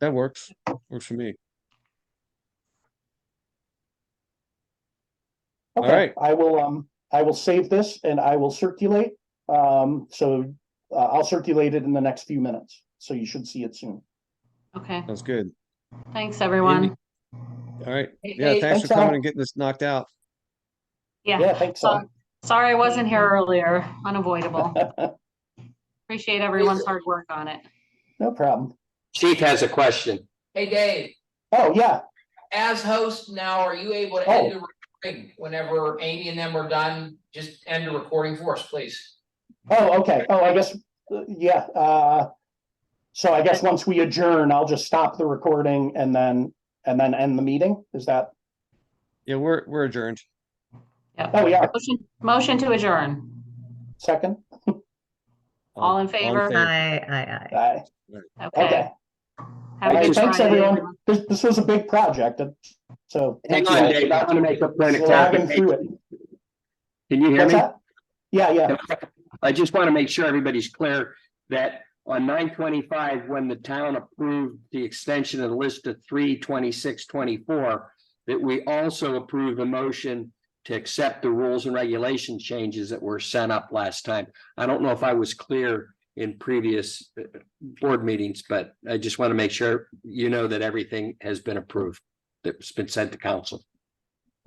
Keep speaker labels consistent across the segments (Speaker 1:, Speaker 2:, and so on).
Speaker 1: That works. Works for me. All right.
Speaker 2: Okay, I will, um, I will save this and I will circulate. Um, so uh, I'll circulate it in the next few minutes, so you should see it soon.
Speaker 3: Okay,
Speaker 1: Sounds good.
Speaker 3: thanks, everyone.
Speaker 1: All right.
Speaker 3: Hey,
Speaker 1: Yeah,
Speaker 3: hey,
Speaker 1: thanks for
Speaker 2: thanks, Al.
Speaker 1: coming and getting this knocked out.
Speaker 3: Yeah,
Speaker 2: Yeah, thanks. Al.
Speaker 3: sorry I wasn't here earlier, unavoidable. Appreciate everyone's hard work on it.
Speaker 2: No problem.
Speaker 4: Chief has a question.
Speaker 5: Hey, Dave,
Speaker 2: Oh, yeah,
Speaker 5: as host now, are you able to
Speaker 4: Oh.
Speaker 5: end the recording whenever Amy and them are done? Just end the recording for us, please.
Speaker 2: oh, okay, oh, I guess, uh, yeah, uh. So I guess once we adjourn, I'll just stop the recording and then, and then end the meeting, is that,
Speaker 1: Yeah, we're, we're adjourned.
Speaker 2: oh, yeah,
Speaker 3: Motion, motion to adjourn.
Speaker 2: second?
Speaker 3: All in favor?
Speaker 6: Aye, aye, aye.
Speaker 2: Aye.
Speaker 3: Okay.
Speaker 2: Okay,
Speaker 3: Have a
Speaker 2: All right,
Speaker 3: good
Speaker 2: thanks,
Speaker 3: Friday,
Speaker 2: everyone. this, this was a big project, uh, so.
Speaker 4: Hang
Speaker 2: thank
Speaker 4: on,
Speaker 2: you.
Speaker 4: Dave, I want to make a point of
Speaker 2: Slogging through it.
Speaker 4: clarification. Can you hear
Speaker 2: What's
Speaker 4: me?
Speaker 2: that? Yeah, yeah,
Speaker 4: I just want to make sure everybody's clear that on nine twenty-five, when the town approved the extension of the list to three twenty-six twenty-four, that we also approved a motion to accept the rules and regulation changes that were sent up last time. I don't know if I was clear in previous uh, board meetings, but I just want to make sure you know that everything has been approved, that's been sent to council.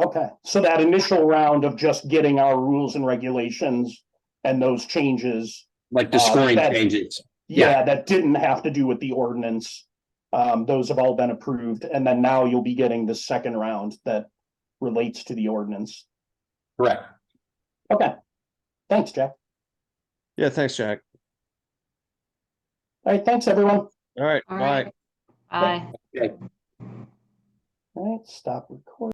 Speaker 2: okay, so that initial round of just getting our rules and regulations and those changes.
Speaker 4: Like the
Speaker 2: Uh,
Speaker 4: scoring
Speaker 2: that-
Speaker 4: changes. Yeah.
Speaker 2: Yeah, that didn't have to do with the ordinance. Um, those have all been approved, and then now you'll be getting the second round that relates to the ordinance.
Speaker 4: Correct.
Speaker 2: Okay, thanks, Jack.
Speaker 1: Yeah, thanks, Jack.
Speaker 2: All right, thanks, everyone.
Speaker 1: All right,
Speaker 3: All
Speaker 1: bye.
Speaker 3: right. Bye.
Speaker 2: All right, stop recording.